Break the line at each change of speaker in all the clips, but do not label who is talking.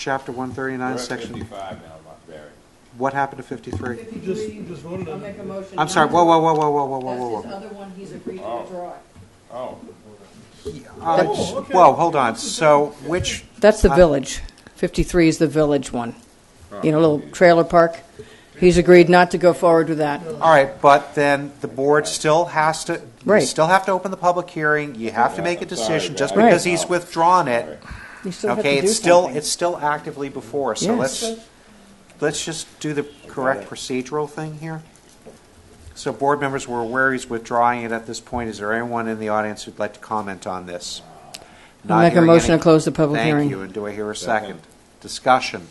chapter one
We're
thirty-nine,
at
section,
fifty-five now, Mark Barry.
what happened to fifty-three?
You
Fifty-three,
just, you just voted
I'll
on
make
it.
a motion.
I'm sorry, whoa, whoa, whoa, whoa, whoa, whoa, whoa,
That's his
whoa.
other one, he's agreed to
Oh.
withdraw it.
Oh,
Uh,
Oh, okay.
Whoa, hold on, so which,
That's the
Uh,
village. 53 is the village one.
Oh.
You know, little trailer park. He's agreed not to go forward with that.
all right, but then the board still has to, you
Right.
still have to open the public hearing, you have to
Yeah,
make a
I'm sorry,
decision, just
guys.
because
Right.
he's withdrawn it,
You still have
okay,
to do
it's still,
something.
it's still actively before, us. so
Yes.
let's, let's just do the correct procedural thing here. So board members were aware he's withdrawing it at this point, is there anyone in the audience who'd like to comment on this? Not
I'll make a
hearing
motion
any-
to close the public
Thank you,
hearing.
and do I hear a
Second.
second? Discussion,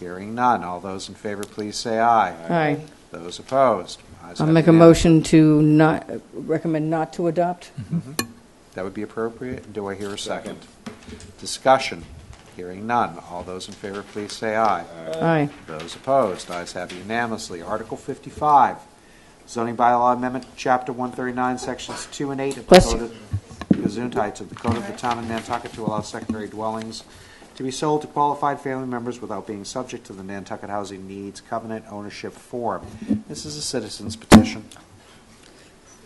hearing none, all those in favor, please say aye.
Aye.
Those opposed? Ayes
I'll
have
make a
it.
motion to not, recommend not to adopt.
That would be appropriate, do I hear a second? Discussion, hearing none, all those in favor, please say aye.
Uh,
Aye.
Those opposed, ayes have unanimously. Article 55, zoning bylaw amendment, Chapter 139, Sections 2 and 8 of the
Bless
Code
you.
of Gesundheit of the Code of the Town of Nantucket to allow secondary dwellings to be sold to qualified family members without being subject to the Nantucket Housing Needs Covenant Ownership Form. This is a citizen's petition.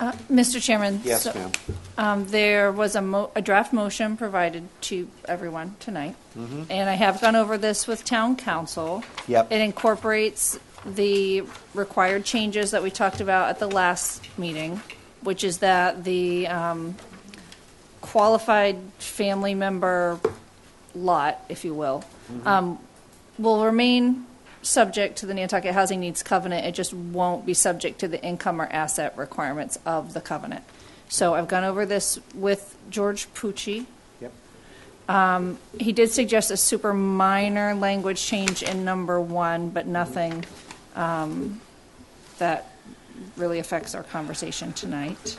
Uh, Mr. Chairman?
Yes,
so,
ma'am.
um, There was a mo, a draft motion provided to everyone tonight. And I have gone over this with town council.
Mm-hmm. Yep.
It incorporates the required changes that we talked about at the last meeting, which is that the um, qualified family member lot, if you will,
Mm-hmm.
um, will remain subject to the Nantucket Housing Needs Covenant. It just won't be subject to the income or asset requirements of the covenant. So I've gone over this with George Pucci.
Yep.
He did suggest a super minor language change in number one, but nothing um, that really affects our conversation tonight.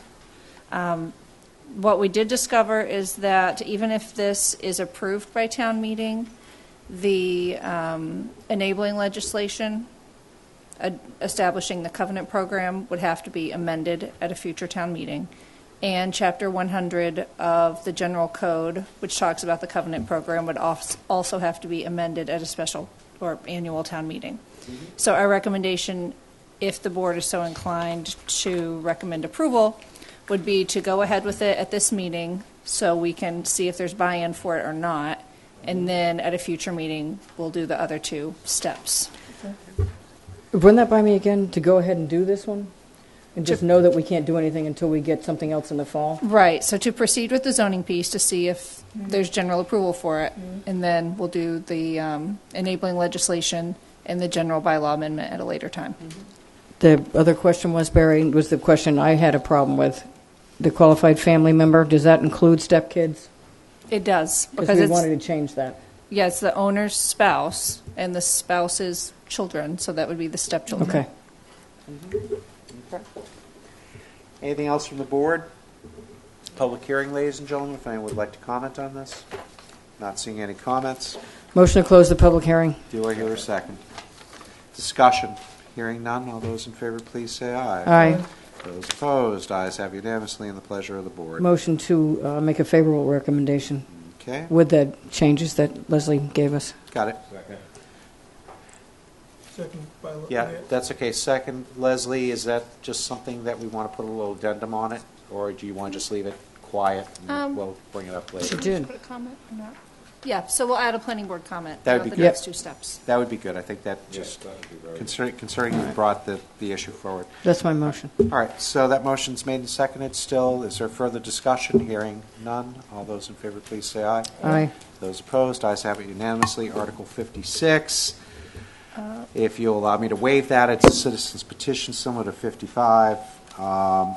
Um, What we did discover is that even if this is approved by town meeting, the um, enabling legislation ad- establishing the covenant program would have to be amended at a future town meeting. And Chapter 100 of the General Code, which talks about the covenant program, would als- also have to be amended at a special or annual town meeting. So our recommendation, if the board is so inclined to recommend approval, would be to go ahead with it at this meeting so we can see if there's buy-in for it or not. And then at a future meeting, we'll do the other two steps.
Run that by me again, to go ahead and do this one? And just know that we can't do anything until we get something else in the fall?
Right, so to proceed with the zoning piece to see if there's general approval for it, and then we'll do the um, enabling legislation and the general bylaw amendment at a later time.
The other question was, Barry, was the question I had a problem with. The qualified family member, does that include stepkids?
It does,
Because
because
we wanted
it's,
to change that.
yeah, it's the owner's spouse and the spouse's children, so that would be the stepchildren.
Okay.
Anything else from the board? Public hearing, ladies and gentlemen, if anyone would like to comment on this? Not seeing any comments.
Motion to close the public hearing.
Do I hear a second? Discussion. Hearing none, all those in favor, please say aye.
Aye.
Those opposed, ayes have unanimously in the pleasure of the board.
Motion to uh, make a favorable recommendation
Okay,
with the changes that Leslie gave us.
got it.
second.
Second by.
Yeah, that's okay. Second, Leslie, is that just something that we want to put a little addendum on it? Or do you want to just leave it quiet and
Um,
we'll bring it up
She
later?
did.
Put a comment or not? Yeah, so we'll add a planning board comment
That would be
about the
good.
next two steps.
That would be good. I think that
Yes,
just
that would be very good.
concerning, concerning you brought the, the issue forward.
That's my motion.
All right, so that motion's made and seconded still. Is there further discussion? Hearing none. All those in favor, please say aye.
Aye.
Those opposed, ayes have it unanimously. Article 56,
Uh.
if you'll allow me to waive that, it's a citizen's petition similar to 55. Um,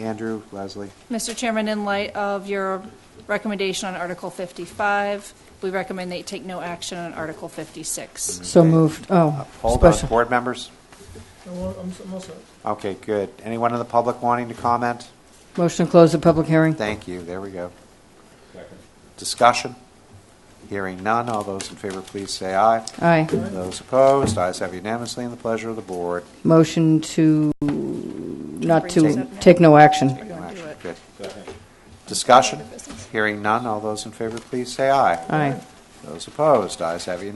Andrew, Leslie,
Mr. Chairman, in light of your recommendation on Article 55, we recommend that you take no action on Article 56.
So moved. Oh,
hold on,
special.
board members?
I'm, all- I'm I'm all set.
Okay, good. Anyone in the public wanting to comment?
Motion to close the public hearing.
Thank you, there we go.
Second.
Discussion? Hearing none, all those in favor, please say aye.
Aye.
Those opposed, ayes have unanimously, and the pleasure of the board.
Motion to, not
bring this
to,
up now?
take no action.
No
Don't do
action.
it.
Good. Discussion? Hearing none, all those in favor, please say aye.
Aye.
Those opposed, ayes have unanimously.